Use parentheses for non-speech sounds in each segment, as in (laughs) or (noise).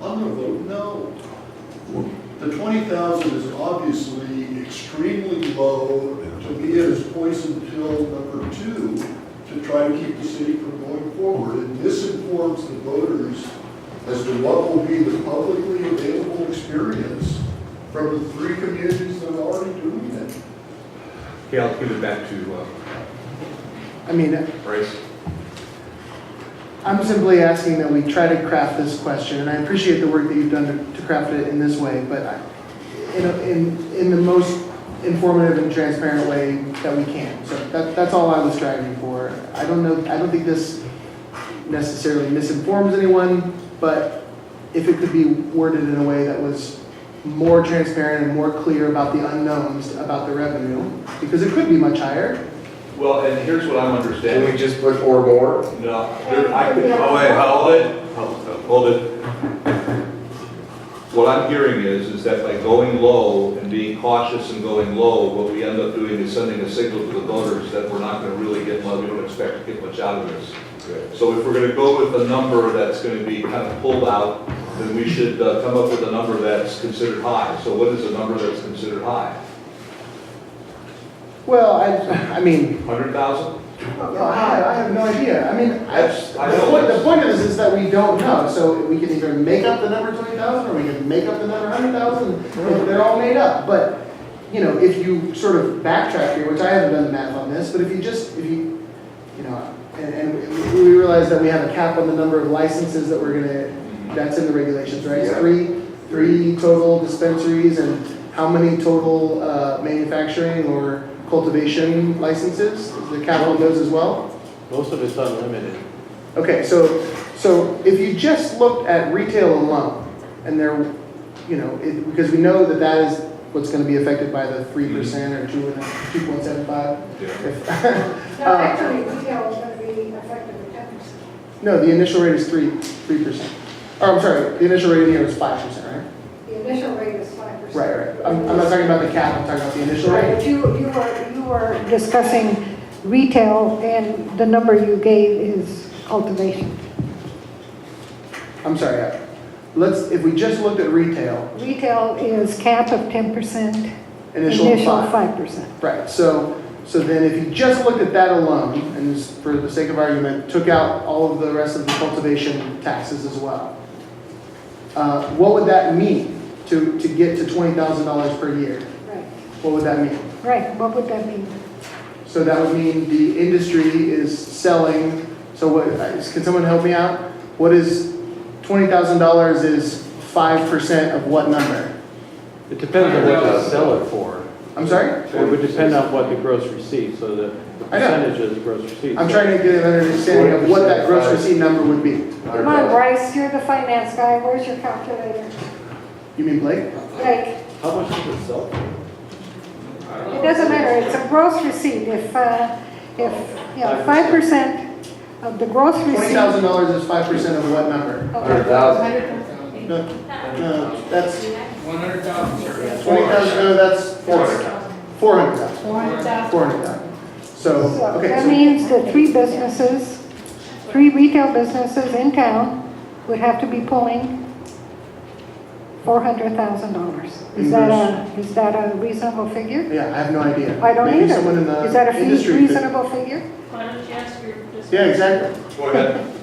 I'm gonna vote no. The twenty thousand is obviously extremely low. To me, it is poison pill number two to try to keep the city from going forward. And this informs the voters as to what will be the publicly available experience from the three communities that are already doing it. Okay, I'll give it back to uh, I mean, Bryce. I'm simply asking that we try to craft this question, and I appreciate the work that you've done to- to craft it in this way, but I- in, a- in, in the most informative and transparent way that we can. So that, that's all I was striving for. I don't know, I don't think this necessarily misinforms anyone, but if it could be worded in a way that was more transparent and more clear about the unknowns, about the revenue, because it could be much higher. Well, and here's what I'm Can we understanding. just put or more? No, there- I could, oh, wait, hold it, Hold- hold it. What I'm hearing is, is that by going low and being cautious and going low, what we end up doing is sending a signal to the voters that we're not gonna really get much, we don't expect to get much out of this. So if we're gonna go with a number that's gonna be kind of pulled out, then we should uh, come up with a number that's considered high. So what is a number that's considered high? Well, I, I mean, Hundred thousand? No, Oh, I, I have no idea. I mean, I, That's- I the know point, it's- the point of this is that we don't know, so we can either make up the number twenty thousand, or we can make up the number hundred thousand, they're all made up, but, you know, if you sort of backtrack here, which I haven't done the math on this, but if you just, if you, you know, and, and we realize that we have a cap on the number of licenses that we're gonna, that's in the regulations, right? It's Yeah. Three, three total dispensaries, and how many total, uh, manufacturing or cultivation licenses, is the cap on those as well? Most of it's unlimited. Okay, so, so if you just looked at retail alone, and there, you know, it, because we know that that is what's gonna be affected by the three percent or two and, two point seven five. Uh, Yeah. (laughs) Um, No, actually, retail is gonna be affected with ten percent. No, the initial rate is three, three percent. Or, I'm sorry, the initial rate in here was five percent, The initial rate is five right? percent. Right, right. I'm, I'm not talking about the cap, I'm talking about the initial Right, rate. but you, you were, you were discussing retail, and the number you gave is cultivation. I'm sorry, I- let's, if we just looked at retail, Retail is cap of ten percent, initial five. percent. Right, so, so then if you just looked at that alone, and just for the sake of argument, took out all of the rest of the cultivation taxes as well, uh, what would that mean to, to get to twenty thousand dollars per year? Right, What would that mean? right, what would that mean? So that would mean the industry is selling, so what, can someone help me out? What is, twenty thousand dollars is five percent of what number? It depends on what they sell it for. I'm sorry? It would depend on what the gross receipt, so the the I know. percentage of the gross receipt. I'm trying to get an understanding of what that gross receipt number would be. Come on, Bryce, you're the finance guy, where's your calculator? You mean Blake? Like, How much does it sell for? It doesn't matter, it's a gross receipt, if, uh, if, yeah, five percent of the gross Twenty receipt. thousand dollars is five percent of what number? Hundred Okay. thousand. No, Uh, no, that's One hundred thousand. twenty thousand, no, that's four hundred thousand. Four hundred thousand, Four hundred thousand. four hundred thousand. So, So that okay, means that three businesses, three retail businesses in town would have to be pulling four hundred thousand dollars. Is that a, is that a reasonable so, figure? yeah, I have no idea. I don't Maybe someone in either. the Is that a fee- industry could- reasonable figure? Why don't you ask your? just- Yeah, exactly. Go ahead.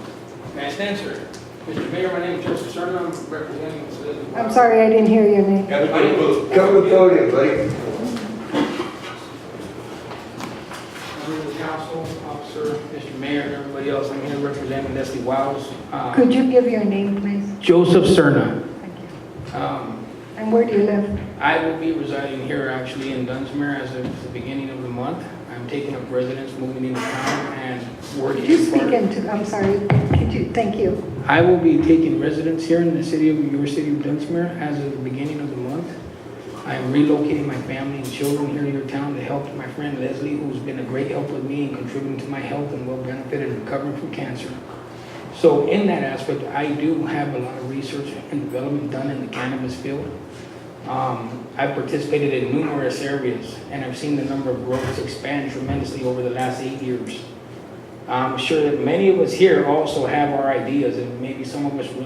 Nice answer. Mr. Mayor, my name is Joseph Serna, I'm representing the citizens. I'm sorry, I didn't hear your name. Have a good move. Come to the podium, buddy. Member of the council, officer, Mr. Mayor, and everybody else, I'm here representing Leslie Wiles. Um, Could you give your name, please? Joseph Serna. Thank you. Um, And where do you live? I will be residing here actually in Dunsmere as of the beginning of the month. I'm taking up residence, moving into town and working. Could you speak part- into, I'm sorry, could you, thank you. I will be taking residence here in the city of, your city of Dunsmere as of the beginning of the month. I am relocating my family and children here in your town to help my friend Leslie, who's been a great help with me and contributing to my health and well benefit in recovering from cancer. So in that aspect, I do have a lot of research and development done in the cannabis field. Um, I've participated in numerous areas, and I've seen the number of growers expand tremendously over the last eight years. I'm sure that many of us here also have our ideas, and maybe some of us really